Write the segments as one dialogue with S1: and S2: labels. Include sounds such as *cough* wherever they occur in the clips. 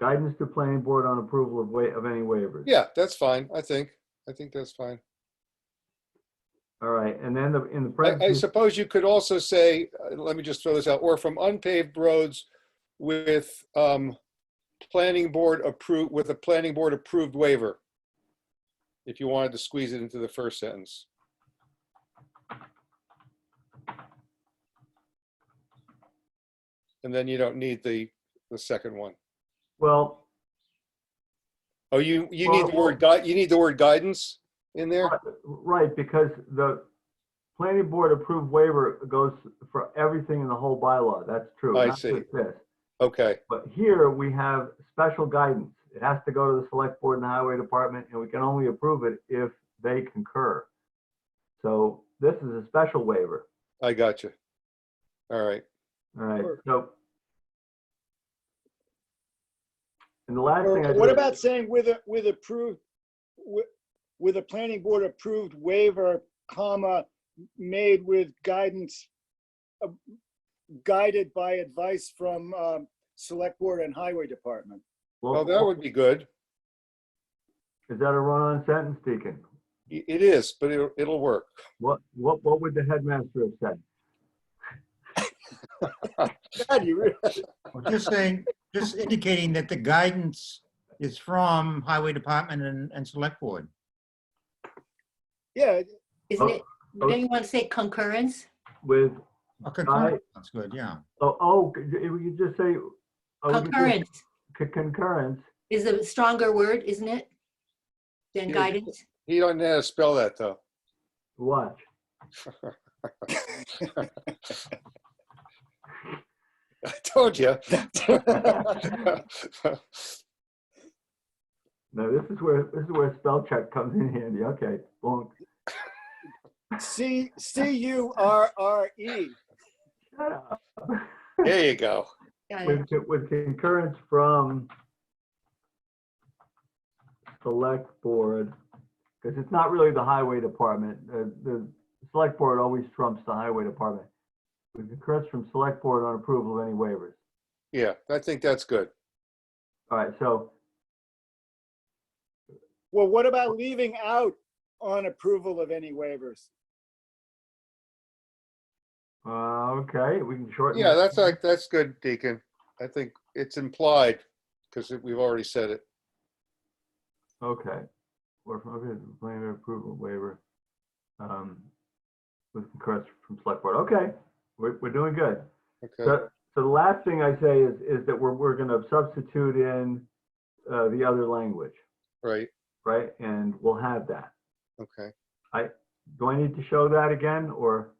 S1: Guidance to planning board on approval of wa, of any waivers.
S2: Yeah, that's fine, I think. I think that's fine.
S1: All right, and then the, in the
S2: I, I
S1: parentheses,
S2: suppose you could also say, uh, let me just throw this out, or from unpaved roads with, um, planning board approved, with a planning board approved waiver. If you wanted to squeeze it into the first sentence. And then you don't need the, the second one.
S1: well,
S2: Oh, you, you need the
S1: Well-
S2: word gui, you need the word guidance in there?
S1: right, because the planning board approved waiver goes for everything in the whole bylaw. That's true.
S2: I
S1: not
S2: see.
S1: just This.
S2: Okay,
S1: But here we have special guidance. It has to go to the select board and the highway department, and we can only approve it if they concur. So this is a special waiver.
S2: I got you. All right.
S1: All right,
S3: Sure.
S1: so. And the last thing I
S3: Or What
S1: did-
S3: about saying with a, with approved, with, with a planning board approved waiver, comma, made with guidance, uh, guided by advice from, um, select board and highway department?
S2: Well,
S1: Well,
S2: Oh, that would be good.
S1: Is that a run-on sentence, Deacon?
S2: I- It is, but it'll, it'll work.
S1: What, what, what would the headmaster have said?
S3: God, you really,
S4: Well, Just saying, just indicating that the guidance is from Highway Department and, and Select Board.
S3: *laughs* yeah,
S1: Oh,
S5: Isn't it,
S1: oh.
S5: would anyone say concurrence?
S1: With,
S4: A concurrent, that's good, yeah.
S1: oh, oh, could you you just say. oh, you just-
S5: Concurrence
S1: c- Concurrence,
S5: is a stronger word, isn't it? Than
S2: Yeah.
S5: guidance?
S2: He don't know how to spell that though. *laughs*
S1: watch.
S2: I told *laughs* you.
S1: Now, this is where, this is where spell check comes in handy. Okay, bonk.
S3: C, C U R R E.
S1: Shut up.
S2: There you go.
S5: Got it.
S1: With, co- with concurrence from select board, because it's not really the highway department. The, the select board always trumps the highway department. With concurrence from select board on approval of any waivers.
S2: Yeah, I think that's good.
S1: All right, so,
S3: Well, what about leaving out on approval of any waivers?
S1: uh, okay, we can shorten.
S2: Yeah,
S1: that.
S2: that's like, that's good, Deacon. I think it's implied because we've already said it.
S1: Okay. Or from, okay, planning approval waiver. Um, with concurrence from select board. Okay, we're, we're doing good.
S2: Okay.
S1: So so the last thing I say is, is that we're, we're gonna substitute in, uh, the other language,
S2: Right.
S1: right? And we'll have that.
S2: Okay.
S1: Do I need to show that again, or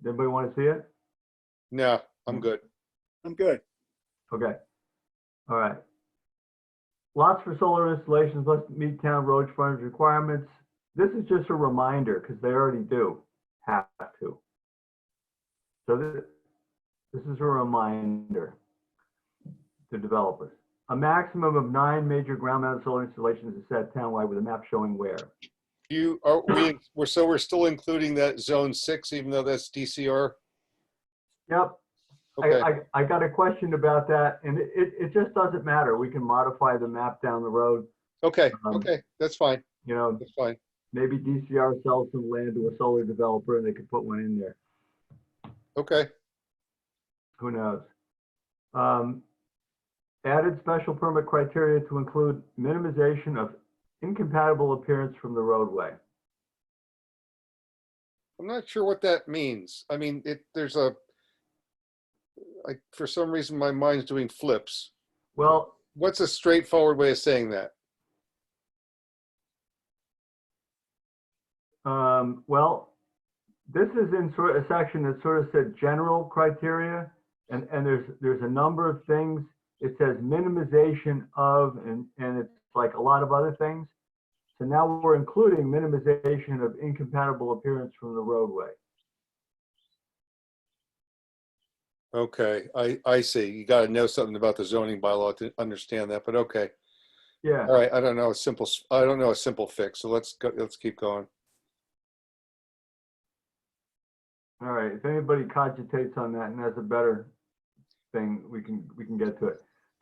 S1: does anybody want to see it?
S2: No,
S1: Mm.
S2: I'm good.
S3: I'm good.
S1: Okay. All right. Lots for solar installations must meet town road frontage requirements. This is just a reminder, because they already do have to. So this, this is a reminder to developers. A maximum of nine major ground mounted solar installations is set townwide with a map showing where.
S2: You are, we, we're, so we're still including that zone six, even though that's DCR?
S1: Yep, I,
S2: Okay,
S1: I, I got a question about that, and it, it it just doesn't matter. We can modify the map down the road,
S2: okay,
S1: um,
S2: okay. That's fine.
S1: you know,
S2: That's fine.
S1: maybe DCR sells some land to a solar developer and they could put one in there.
S2: Okay.
S1: Who knows? Um, added special permit criteria to include minimization of incompatible appearance from the roadway.
S2: I'm not sure what that means. I mean, it, there's a, like, for some reason, my mind's doing flips.
S1: Well,
S2: What's a straightforward way of saying that?
S1: um, well, this is in sort of a section that sort of said general criteria, and, and there's, there's a number of things. It says minimization of, and, and it's like a lot of other things. So now we're including minimization of incompatible appearance from the roadway.
S2: Okay, I, I see. You gotta know something about the zoning bylaw to understand that, but okay.
S1: Yeah.
S2: All right, I don't know a simple, s- I don't know a simple fix, so let's go, let's keep going.
S1: All right, if anybody cogitates on that and has a better thing, we can, we can get to it.